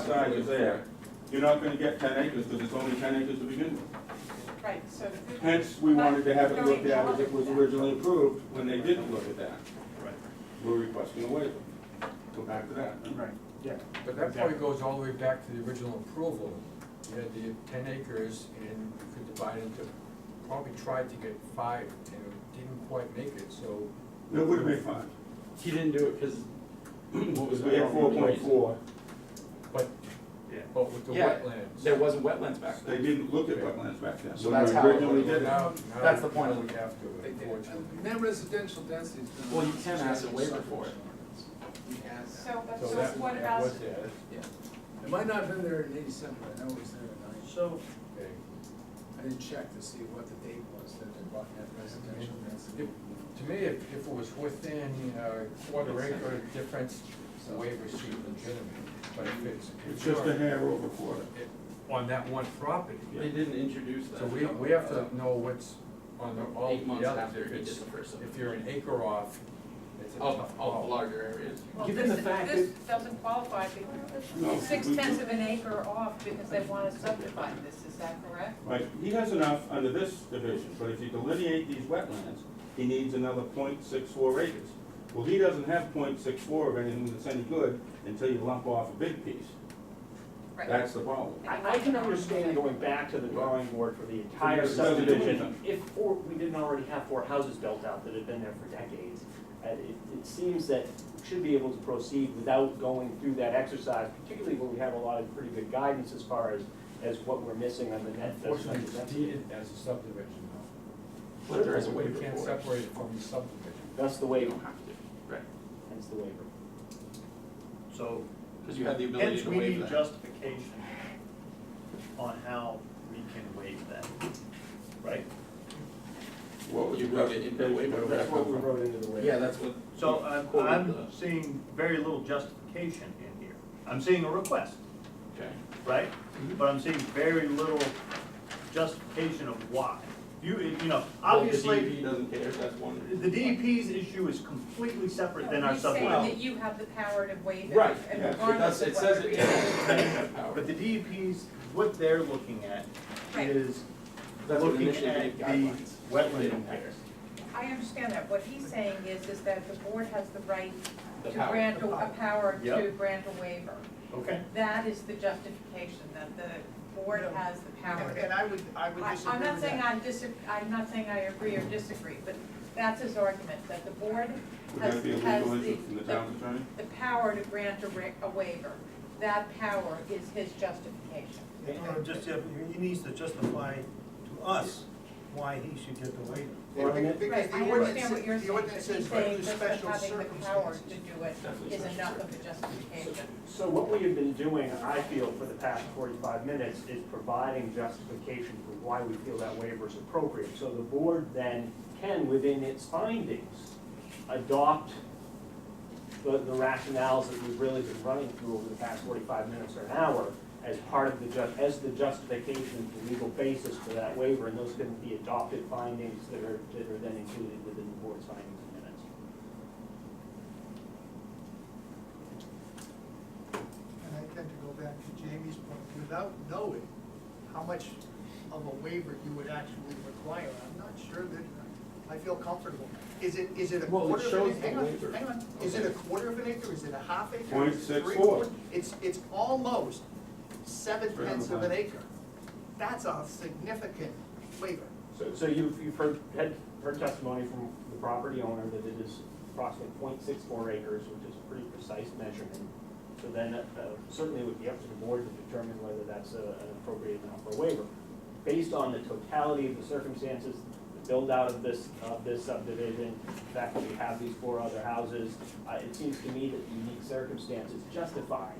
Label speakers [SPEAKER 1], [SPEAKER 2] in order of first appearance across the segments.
[SPEAKER 1] size is there, you're not gonna get ten acres, because it's only ten acres to begin with.
[SPEAKER 2] Right, so.
[SPEAKER 1] Hence, we wanted to have it looked at as it was originally approved, when they didn't look at that.
[SPEAKER 3] Right.
[SPEAKER 1] We're requesting a waiver. Go back to that.
[SPEAKER 3] Right, yeah.
[SPEAKER 4] But that probably goes all the way back to the original approval. You had the ten acres and you could divide into, probably tried to get five and it didn't quite make it, so.
[SPEAKER 1] It would have been fine,
[SPEAKER 5] He didn't do it because.
[SPEAKER 1] because we had four point four,
[SPEAKER 4] But,
[SPEAKER 3] Yeah.
[SPEAKER 4] but with the
[SPEAKER 5] Yeah,
[SPEAKER 4] wetlands.
[SPEAKER 5] there wasn't wetlands back
[SPEAKER 1] they
[SPEAKER 5] then.
[SPEAKER 1] didn't look at wetlands back then.
[SPEAKER 5] So
[SPEAKER 1] When we
[SPEAKER 5] that's how it
[SPEAKER 1] originally
[SPEAKER 5] was.
[SPEAKER 1] did it.
[SPEAKER 4] Now, now
[SPEAKER 5] That's the point.
[SPEAKER 4] We have to, unfortunately.
[SPEAKER 6] Net residential density is gonna.
[SPEAKER 5] Well, you can ask a waiver for it.
[SPEAKER 6] You can ask that.
[SPEAKER 2] So, but- so
[SPEAKER 4] that-
[SPEAKER 2] what
[SPEAKER 4] that
[SPEAKER 2] about,
[SPEAKER 4] was it,
[SPEAKER 6] Yeah. It might not have been there in eighty-seven, but I know it was there in ninety.
[SPEAKER 3] So,
[SPEAKER 4] okay.
[SPEAKER 6] I didn't check to see what the date was that they brought net residential density.
[SPEAKER 4] To me, if, if it was within a quarter acre difference, the waiver seemed legitimate, but if it's.
[SPEAKER 1] It's just a hair over quarter.
[SPEAKER 4] it- On that one property.
[SPEAKER 5] They didn't introduce that.
[SPEAKER 4] So we, we have to know what's on the, all
[SPEAKER 5] Eight months
[SPEAKER 4] the others,
[SPEAKER 5] after
[SPEAKER 4] if
[SPEAKER 5] he did
[SPEAKER 4] it's,
[SPEAKER 5] the first one.
[SPEAKER 4] if you're an acre off, it's a
[SPEAKER 5] Of,
[SPEAKER 4] tough
[SPEAKER 5] of
[SPEAKER 4] call.
[SPEAKER 5] larger areas.
[SPEAKER 2] well,
[SPEAKER 5] Given the
[SPEAKER 2] this,
[SPEAKER 5] fact
[SPEAKER 2] this
[SPEAKER 5] that,
[SPEAKER 2] doesn't qualify
[SPEAKER 1] No, we-
[SPEAKER 2] because six tenths of an acre off because they want to subdivide this, is that correct?
[SPEAKER 1] Right, he has enough under this division, but if you delineate these wetlands, he needs another 0.64 acres. Well, he doesn't have 0.64 of anything that's any good until you lump off a big piece.
[SPEAKER 2] Right.
[SPEAKER 1] That's the problem.
[SPEAKER 7] I, I can understand going back to the drawing board for the entire
[SPEAKER 1] It doesn't do
[SPEAKER 7] subdivision,
[SPEAKER 1] anything.
[SPEAKER 7] if four, we didn't already have four houses built out that had been there for decades. And it, it seems that we should be able to proceed without going through that exercise, particularly when we have a lot of pretty good guidance as far as, as what we're missing on the net.
[SPEAKER 4] Unfortunately, it's deeded as a subdivision though.
[SPEAKER 5] but there is a
[SPEAKER 4] We
[SPEAKER 5] waiver
[SPEAKER 4] can't
[SPEAKER 5] for it.
[SPEAKER 4] separate it from the subdivision.
[SPEAKER 7] That's the
[SPEAKER 5] They
[SPEAKER 7] waiver,
[SPEAKER 5] don't have to, right?
[SPEAKER 7] hence the waiver.
[SPEAKER 3] so
[SPEAKER 5] Because you have the ability
[SPEAKER 3] hence
[SPEAKER 5] to
[SPEAKER 3] we
[SPEAKER 5] waive
[SPEAKER 3] need
[SPEAKER 5] that.
[SPEAKER 3] justification on how we can waive that, right?
[SPEAKER 1] What was
[SPEAKER 5] You
[SPEAKER 1] the
[SPEAKER 5] wrote it in the way,
[SPEAKER 1] justification?
[SPEAKER 5] whatever. That's what we
[SPEAKER 7] wrote into the
[SPEAKER 5] Yeah, that's what.
[SPEAKER 3] So
[SPEAKER 5] you
[SPEAKER 3] I'm,
[SPEAKER 5] quoted
[SPEAKER 3] I'm
[SPEAKER 5] the-
[SPEAKER 3] seeing very little justification in here. I'm seeing a request,
[SPEAKER 5] Okay. Mm-hmm.
[SPEAKER 3] right? But I'm seeing very little justification of why. You, you know,
[SPEAKER 5] Well,
[SPEAKER 3] obviously,
[SPEAKER 5] The E DEP doesn't care, that's one.
[SPEAKER 3] the DEP's issue is completely separate than our
[SPEAKER 2] He's saying
[SPEAKER 3] subdivision.
[SPEAKER 2] that you have the power to waive it.
[SPEAKER 5] Right,
[SPEAKER 2] and
[SPEAKER 1] yeah, it
[SPEAKER 5] It
[SPEAKER 2] regardless
[SPEAKER 5] does,
[SPEAKER 2] of
[SPEAKER 5] it says
[SPEAKER 2] whether
[SPEAKER 5] it
[SPEAKER 2] we-
[SPEAKER 5] doesn't
[SPEAKER 3] But the DEP's, what they're looking at
[SPEAKER 2] Right.
[SPEAKER 3] is
[SPEAKER 5] That's what
[SPEAKER 3] looking
[SPEAKER 5] initially
[SPEAKER 3] at
[SPEAKER 5] gave
[SPEAKER 3] the
[SPEAKER 5] guidelines. They
[SPEAKER 3] wetland
[SPEAKER 5] don't care.
[SPEAKER 3] impacts.
[SPEAKER 2] I understand that, what he's saying is, is that the board has the right
[SPEAKER 5] The
[SPEAKER 2] to
[SPEAKER 5] power.
[SPEAKER 2] grant, a a power to
[SPEAKER 3] Yep.
[SPEAKER 2] grant a waiver.
[SPEAKER 3] Okay.
[SPEAKER 2] That is the justification, that the board has the power to
[SPEAKER 6] And I would, I would
[SPEAKER 2] I-
[SPEAKER 6] disagree
[SPEAKER 2] I'm not
[SPEAKER 6] with
[SPEAKER 2] saying
[SPEAKER 6] that.
[SPEAKER 2] I dis, I'm not saying I agree or disagree, but that's his argument, that the board
[SPEAKER 1] Would
[SPEAKER 2] has,
[SPEAKER 1] that be a
[SPEAKER 2] has
[SPEAKER 1] legal
[SPEAKER 2] the,
[SPEAKER 1] issue from the town attorney?
[SPEAKER 2] the power to grant a ra- a waiver. That power is his justification.
[SPEAKER 8] Or Uh, just, if- he needs to justify to us why he should get the waiver.
[SPEAKER 6] Because the
[SPEAKER 2] Right, I
[SPEAKER 6] ordinance-
[SPEAKER 2] understand what you're
[SPEAKER 6] the
[SPEAKER 2] saying, but
[SPEAKER 6] ordinance
[SPEAKER 2] he's
[SPEAKER 6] says
[SPEAKER 2] saying
[SPEAKER 6] under
[SPEAKER 2] just that
[SPEAKER 6] special
[SPEAKER 2] having the power
[SPEAKER 6] circumstances.
[SPEAKER 2] to do it is enough of a justification.
[SPEAKER 7] So what we have been doing, I feel, for the past forty-five minutes is providing justification for why we feel that waiver is appropriate. So the board then can, within its findings, adopt the, the rationales that we've really been running through over the past forty-five minutes or an hour as part of the ju, as the justification, the legal basis for that waiver, and those can be adopted findings that are, that are then included within the board's findings and minutes.
[SPEAKER 8] And I tend to go back to Jamie's point, without knowing how much of a waiver you would actually require, I'm not sure that, I feel comfortable. Is it, is it a
[SPEAKER 5] Well, it
[SPEAKER 8] quarter of
[SPEAKER 5] shows
[SPEAKER 8] an acre?
[SPEAKER 5] the
[SPEAKER 8] Hang on,
[SPEAKER 5] waiver.
[SPEAKER 8] Hang on, is it a quarter of an acre, is it a half acre?
[SPEAKER 1] Point
[SPEAKER 8] Is it
[SPEAKER 1] six
[SPEAKER 8] three
[SPEAKER 1] four.
[SPEAKER 8] quarter- It's, it's almost seven
[SPEAKER 1] Three
[SPEAKER 8] tenths of
[SPEAKER 1] hundred
[SPEAKER 8] an acre. That's a significant waiver.
[SPEAKER 7] So you've, you've heard, had, heard testimony from the property owner that it is approximately 0.64 acres, which is a pretty precise measurement. So then, uh, certainly it would be up to the board to determine whether that's a- an appropriate amount for a waiver. Based on the totality of the circumstances, the build-out of this, of this subdivision, the fact that we have these four other houses, uh, it seems to me that the unique circumstances justify,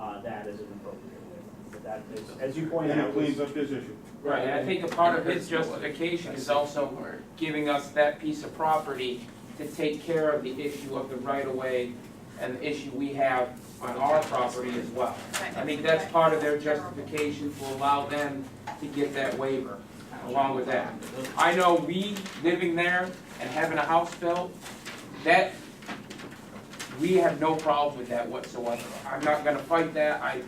[SPEAKER 7] uh, that as an appropriate waiver. But that is, as you point
[SPEAKER 1] And
[SPEAKER 7] out,
[SPEAKER 1] it cleans
[SPEAKER 7] was
[SPEAKER 1] up this issue.
[SPEAKER 9] Right, and I think a part of his justification is also giving us that piece of property to take care of the issue of the right-of-way and the issue we have on our property as well. I think that's part of their justification to allow them to get that waiver along with that. I know we, living there and having a house built, that, we have no problem with that whatsoever. I'm not gonna fight that, I,